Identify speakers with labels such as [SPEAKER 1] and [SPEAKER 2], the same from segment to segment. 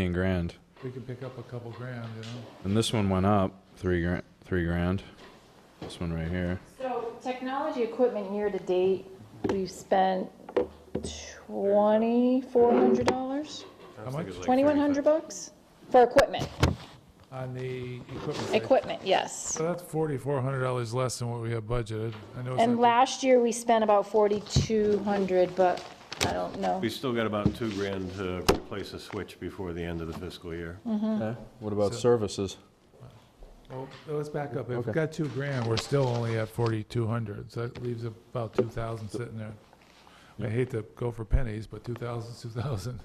[SPEAKER 1] 15 grand.
[SPEAKER 2] We could pick up a couple grand, you know?
[SPEAKER 1] And this one went up three grand. Three grand. This one right here.
[SPEAKER 3] So technology equipment year-to-date, we've spent twenty-four hundred dollars,
[SPEAKER 2] How much?
[SPEAKER 3] twenty-one hundred bucks for equipment,
[SPEAKER 2] On the equipment. right?
[SPEAKER 3] equipment, yes.
[SPEAKER 2] So that's forty-four hundred dollars less than what we had budgeted. I know it's
[SPEAKER 3] And
[SPEAKER 2] not
[SPEAKER 3] last year, we spent about forty-two hundred, but I don't know.
[SPEAKER 4] We still got about two grand to replace a switch before the end of the fiscal year.
[SPEAKER 1] Okay. What about
[SPEAKER 2] So-
[SPEAKER 1] services?
[SPEAKER 2] big. Well, Oh, Let's back up. If
[SPEAKER 1] Okay.
[SPEAKER 2] we've got two grand, we're still only at forty-two hundred, so that leaves about two thousand sitting there. I hate to go for pennies, but two thousand's two thousand.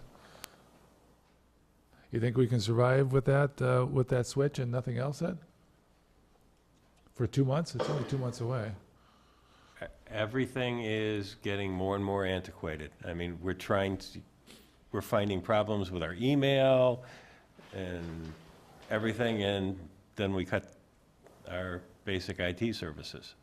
[SPEAKER 2] You think we can survive with that, uh, with that switch and nothing else then? For two months? It's only two months away.
[SPEAKER 4] Everything is getting more and more antiquated. I mean, we're trying to, we're finding problems with our email and everything, and then we cut our basic IT services.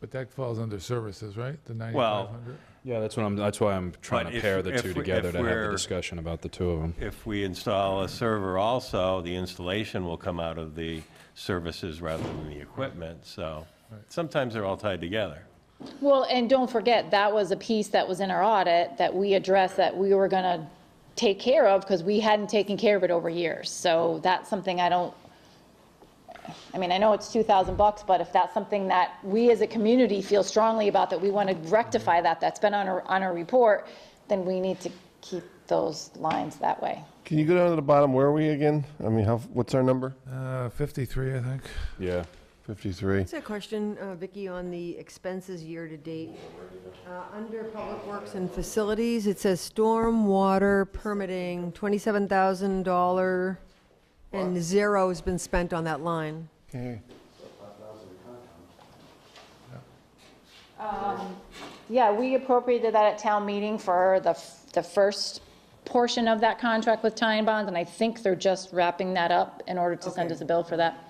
[SPEAKER 2] But that falls under services, right? The
[SPEAKER 4] Well,
[SPEAKER 2] ninety-five hundred?
[SPEAKER 1] Yeah, that's what I'm. That's why I'm trying
[SPEAKER 4] But
[SPEAKER 1] to
[SPEAKER 4] if-
[SPEAKER 1] pair the
[SPEAKER 4] if
[SPEAKER 1] two
[SPEAKER 4] we-
[SPEAKER 1] together
[SPEAKER 4] if
[SPEAKER 1] to have the
[SPEAKER 4] we're-
[SPEAKER 1] discussion about the two of them.
[SPEAKER 4] If we install a server also, the installation will come out of the services rather than the equipment, so sometimes they're all tied together.
[SPEAKER 3] Well, and don't forget, that was a piece that was in our audit that we addressed that we were gonna take care of because we hadn't taken care of it over years. So that's something I don't, I mean, I know it's two thousand bucks, but if that's something that we as a community feel strongly about, that we want to rectify that, that's been on our, on our report, then we need to keep those lines that way.
[SPEAKER 5] Can you go down to the bottom? Where are we again? I mean, how, what's our number?
[SPEAKER 2] Uh, fifty-three, I think.
[SPEAKER 1] Yeah.
[SPEAKER 5] 53.
[SPEAKER 6] Just a question, uh, Vicky, on the expenses year-to-date. Uh, Under Public Works and Facilities, it says storm water permitting, $27,000, and zero has been spent on that line.
[SPEAKER 5] Okay.
[SPEAKER 3] Yeah, we appropriated that at town meeting for the, f- the first portion of that contract with tie bonds, and I think they're just wrapping that up in order to send
[SPEAKER 6] Okay.
[SPEAKER 3] us a bill for that.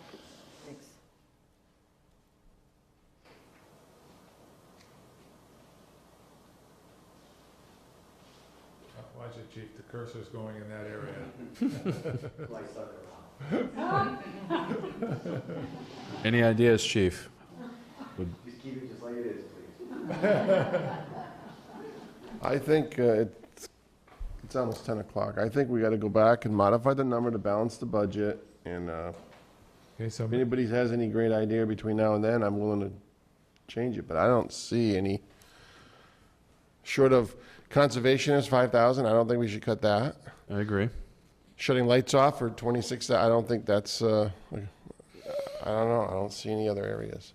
[SPEAKER 2] Watch it, Chief, the cursor's going in that area.
[SPEAKER 5] Mm-hmm.
[SPEAKER 1] Any ideas, Chief?
[SPEAKER 5] I think uh, it's, it's almost 10 o'clock. I think we got to go back and modify the number to balance the budget. And uh,
[SPEAKER 2] Okay, so
[SPEAKER 5] if anybody has any great idea between now and then, I'm willing to change it, but I don't see any. Short of conservation is 5,000, I don't think we should cut that.
[SPEAKER 1] I agree.
[SPEAKER 5] Shutting lights off for 26, I don't think that's, uh, I don't know, I don't see any other areas.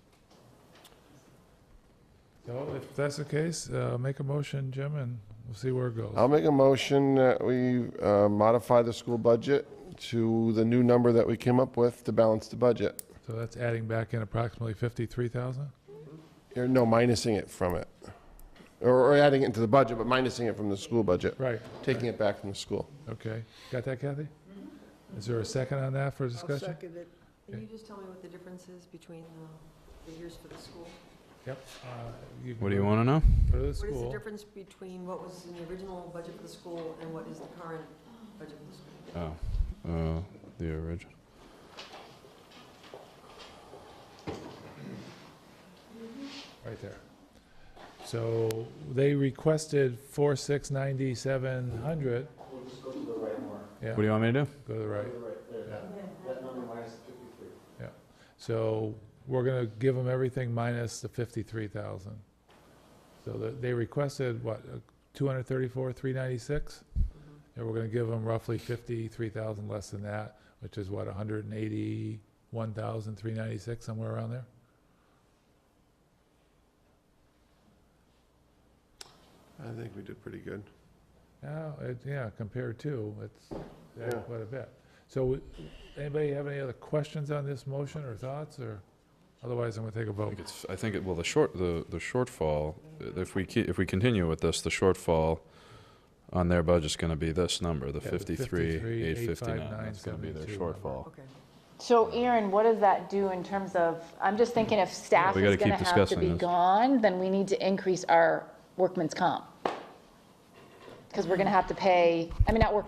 [SPEAKER 2] so if that's the case, uh, make a motion, Jim, and we'll see where it goes.
[SPEAKER 5] I'll make a motion that we uh, modify the school budget to the new number that we came up with to balance the budget.
[SPEAKER 2] So that's adding back in approximately fifty-three thousand?
[SPEAKER 5] Or no, minusing it from it. Or or adding it into the budget, but minusing it from the school budget,
[SPEAKER 2] Right,
[SPEAKER 5] taking it back from the school.
[SPEAKER 2] okay. Got that, Kathy?
[SPEAKER 6] Mm-hmm.
[SPEAKER 2] Is there a second on that for discussion?
[SPEAKER 6] it. Can you just tell me what the difference is between um, the figures for the school?
[SPEAKER 2] Yep. uh, can
[SPEAKER 1] What do you want to know?
[SPEAKER 2] Go to the
[SPEAKER 6] What is the
[SPEAKER 2] school.
[SPEAKER 6] difference between what was in the original budget for the school and what is the current budget for the school?
[SPEAKER 1] Oh, uh, the original.
[SPEAKER 2] Right there. So they requested four, six, ninety-seven hundred. We'll
[SPEAKER 1] What do you want me to do?
[SPEAKER 2] Go to the right. Yeah. So we're gonna give them everything minus the fifty-three thousand. So the- they requested, what, uh, two hundred thirty-four, three ninety-six? And we're gonna give them roughly fifty-three thousand less than that, which is what, hundred and eighty-one thousand, three ninety-six, somewhere around there?
[SPEAKER 5] I think we did pretty good.
[SPEAKER 2] Yeah, it, yeah, compared to, it's yeah,
[SPEAKER 5] Yeah.
[SPEAKER 2] quite a bit. So, we- anybody have any other questions on this motion or thoughts, or, otherwise I'm gonna take a
[SPEAKER 1] I
[SPEAKER 2] vote.
[SPEAKER 1] think it's. I think it. Well, the short. The the shortfall. uh, If we keep, if we continue with this, the shortfall on their budget's going to be this number, the
[SPEAKER 2] Yeah, the
[SPEAKER 1] 53,
[SPEAKER 2] 53,
[SPEAKER 1] 859.
[SPEAKER 2] 859,
[SPEAKER 1] That's going to be their
[SPEAKER 2] 72 number.
[SPEAKER 1] shortfall.
[SPEAKER 6] Okay.
[SPEAKER 3] So Aaron, what does that do in terms of, I'm just thinking if staff
[SPEAKER 1] We gotta
[SPEAKER 3] is gonna
[SPEAKER 1] keep
[SPEAKER 3] have to
[SPEAKER 1] discussing
[SPEAKER 3] be
[SPEAKER 1] this.
[SPEAKER 3] gone, then we need to increase our workman's comp. because we're gonna have to pay, I mean, not workers'